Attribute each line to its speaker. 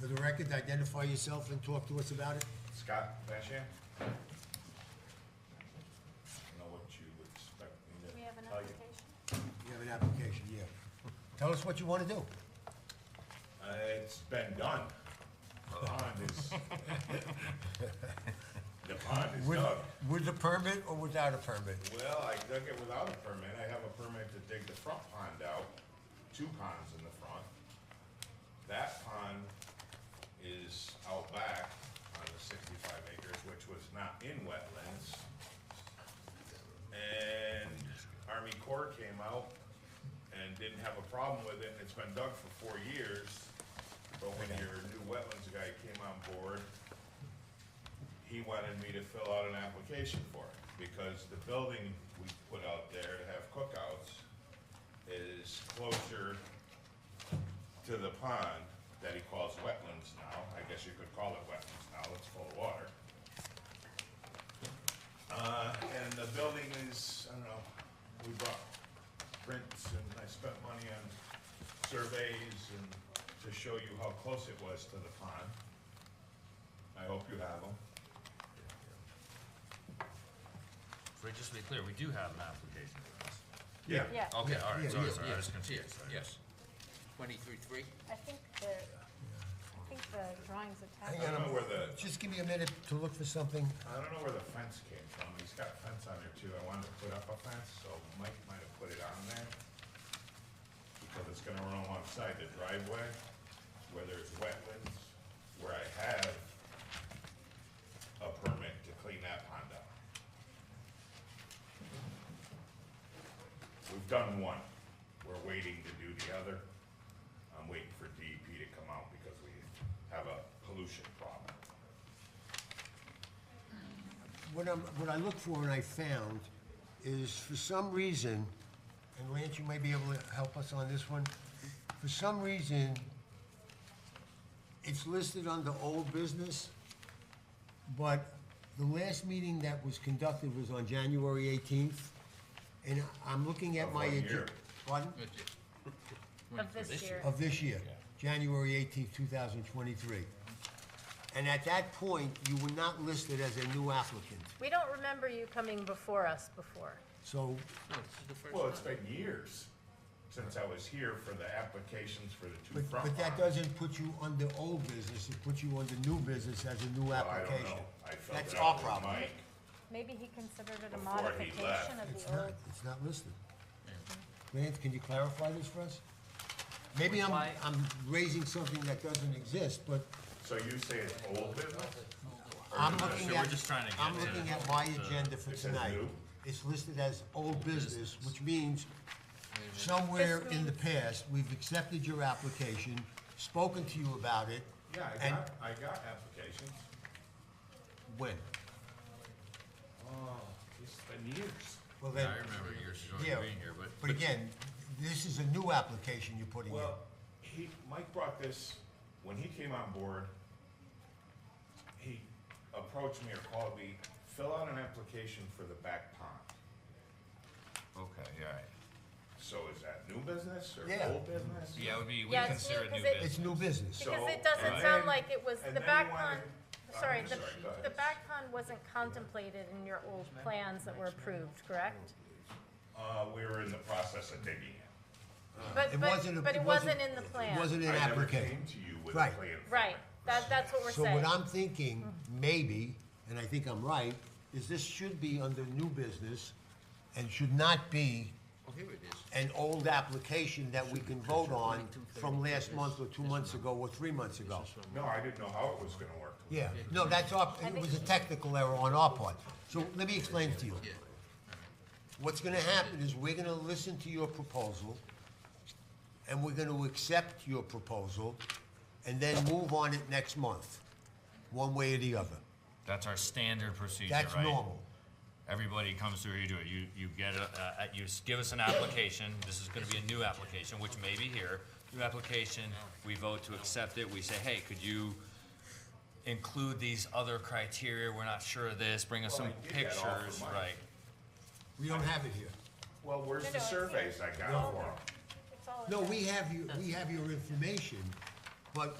Speaker 1: For the record, identify yourself and talk to us about it.
Speaker 2: Scott Bashan? I don't know what you would expect me to
Speaker 3: We have an
Speaker 2: tell you.
Speaker 3: application?
Speaker 1: You have an application, yeah. Tell us what you want to do.
Speaker 2: Uh, It's been done. The pond is, the pond is
Speaker 1: With,
Speaker 2: dug.
Speaker 1: with a permit or without a permit?
Speaker 2: Well, I dug it without a permit. I have a permit to dig the front pond out, two ponds in the front. That pond is out back on the sixty-five acres, which was not in wetlands. And Army Corps came out and didn't have a problem with it, and it's been dug for four years. But when your new wetlands guy came on board, he wanted me to fill out an application for it, because the building we put out there to have cookouts is closer to the pond that he calls wetlands now, I guess you could call it wetlands now, it's full of water. Uh, and the building is, I don't know, we brought prints and I spent money on surveys and to show you how close it was to the pond. I hope you have them.
Speaker 4: For just to be clear, we do have an application for this.
Speaker 2: Yeah.
Speaker 3: Yeah,
Speaker 4: Okay, all
Speaker 1: yeah,
Speaker 4: right, sorry,
Speaker 1: yeah,
Speaker 4: sorry, I was confused.
Speaker 5: Yes, yes. Twenty-three, three?
Speaker 3: I think the, I think the drawings
Speaker 2: I
Speaker 3: attached.
Speaker 2: don't know where the,
Speaker 1: Just give me a minute to look for something.
Speaker 2: I don't know where the fence came from. He's got a fence on there too. I wanted to put up a fence, so Mike might have put it on there. Because it's gonna run alongside the driveway, where there's wetlands, where I have a permit to clean that pond up. We've done one. We're waiting to do the other. I'm waiting for DEP to come out because we have a pollution problem.
Speaker 1: What I'm, what I looked for and I found is for some reason, and Lance, you may be able to help us on this one. For some reason, it's listed under old business, but the last meeting that was conducted was on January eighteenth. And I'm looking at
Speaker 2: Of
Speaker 1: my.
Speaker 2: what
Speaker 1: agen-
Speaker 2: year?
Speaker 1: Pardon?
Speaker 3: Of this year.
Speaker 1: of this year, January 18th, 2023. And at that point, you were not listed as a new applicant.
Speaker 3: We don't remember you coming before us before.
Speaker 1: So,
Speaker 5: No, this is the first
Speaker 2: Well, it's
Speaker 5: one.
Speaker 2: been years since I was here for the applications for the two
Speaker 1: but
Speaker 2: front
Speaker 1: but that
Speaker 2: lines.
Speaker 1: doesn't put you under old business, it puts you under new business as a new
Speaker 2: Well, I don't
Speaker 1: application.
Speaker 2: know. I felt
Speaker 1: That's
Speaker 2: it
Speaker 1: our
Speaker 2: out with
Speaker 1: problem.
Speaker 2: Mike.
Speaker 3: Maybe he considered it a
Speaker 2: Before he
Speaker 3: modification
Speaker 2: left.
Speaker 3: of
Speaker 1: It's
Speaker 3: the
Speaker 1: not,
Speaker 3: old.
Speaker 1: it's not listed. Lance, can you clarify this for us? Maybe I'm,
Speaker 5: Why-
Speaker 1: I'm raising something that doesn't exist, but
Speaker 2: So you say it's old business?
Speaker 1: I'm
Speaker 4: no,
Speaker 1: looking
Speaker 4: so
Speaker 1: at.
Speaker 4: we're just trying to
Speaker 1: I'm
Speaker 4: get to-
Speaker 1: looking at my agenda for
Speaker 2: uh, It says
Speaker 1: tonight.
Speaker 2: new.
Speaker 1: It's listed as old business, which means somewhere
Speaker 3: This
Speaker 1: in the
Speaker 3: means-
Speaker 1: past, we've accepted your application, spoken to you about it.
Speaker 2: Yeah, I
Speaker 1: and
Speaker 2: got, I got applications.
Speaker 1: When?
Speaker 2: Oh, it's been years.
Speaker 1: Well,
Speaker 4: Yeah,
Speaker 1: then,
Speaker 4: I remember years ago
Speaker 1: yeah,
Speaker 4: being here, but.
Speaker 1: but again, this is a new application you're putting in.
Speaker 2: Well, he, Mike brought this, when he came on board, he approached me or called me, fill out an application for the back pond.
Speaker 4: Okay, all right.
Speaker 2: So is that new business or
Speaker 1: Yeah.
Speaker 2: old business?
Speaker 4: Yeah, it would be, we
Speaker 3: Yeah, it's
Speaker 4: consider
Speaker 3: new
Speaker 4: it new
Speaker 3: 'cause it-
Speaker 1: It's
Speaker 4: business.
Speaker 1: new business.
Speaker 2: So-
Speaker 3: Because it
Speaker 2: and
Speaker 3: doesn't sound
Speaker 2: then-
Speaker 3: like it was,
Speaker 2: and
Speaker 3: the
Speaker 2: then
Speaker 3: back
Speaker 2: you wanted-
Speaker 3: pond,
Speaker 2: I'm
Speaker 3: sorry, the,
Speaker 2: sorry, go ahead.
Speaker 3: the back pond wasn't contemplated in your old plans that were approved, correct?
Speaker 2: Uh, we were in the process of digging it.
Speaker 1: It
Speaker 3: But,
Speaker 1: wasn't a-
Speaker 3: but, but
Speaker 1: it wasn't-
Speaker 3: it wasn't in the
Speaker 1: It
Speaker 3: plan.
Speaker 1: wasn't an
Speaker 2: I never
Speaker 1: application.
Speaker 2: came to you with a
Speaker 1: Right.
Speaker 2: plan. for it.
Speaker 3: Right, that, that's what we're
Speaker 1: So
Speaker 3: saying.
Speaker 1: what I'm thinking, maybe, and I think I'm right, is this should be under new business and should not be
Speaker 5: Oh, here it is.
Speaker 1: an old application that we can vote on from last month or two months ago or three months ago.
Speaker 2: No, I didn't know how it was gonna work.
Speaker 1: Yeah, no, that's our, it was a technical error on our part. So let me explain to you. What's gonna happen is we're gonna listen to your proposal, and we're gonna accept your proposal, and then move on it next month, one way or the other.
Speaker 4: That's our standard procedure, right?
Speaker 1: That's normal.
Speaker 4: Everybody comes through, you do it, you, you get a, uh, you s- give us an application, this is gonna be a new application, which may be here. New application, we vote to accept it, we say, hey, could you include these other criteria, we're not sure of this, bring us
Speaker 2: Well,
Speaker 4: some
Speaker 2: I did that all for
Speaker 4: pictures,
Speaker 2: mine.
Speaker 4: right?
Speaker 1: We don't have it here.
Speaker 2: Well, where's
Speaker 3: No,
Speaker 2: the
Speaker 3: no, I see.
Speaker 2: surveys I got for 'em?
Speaker 3: It's all in
Speaker 1: No,
Speaker 3: there.
Speaker 1: we have you, we have your information, but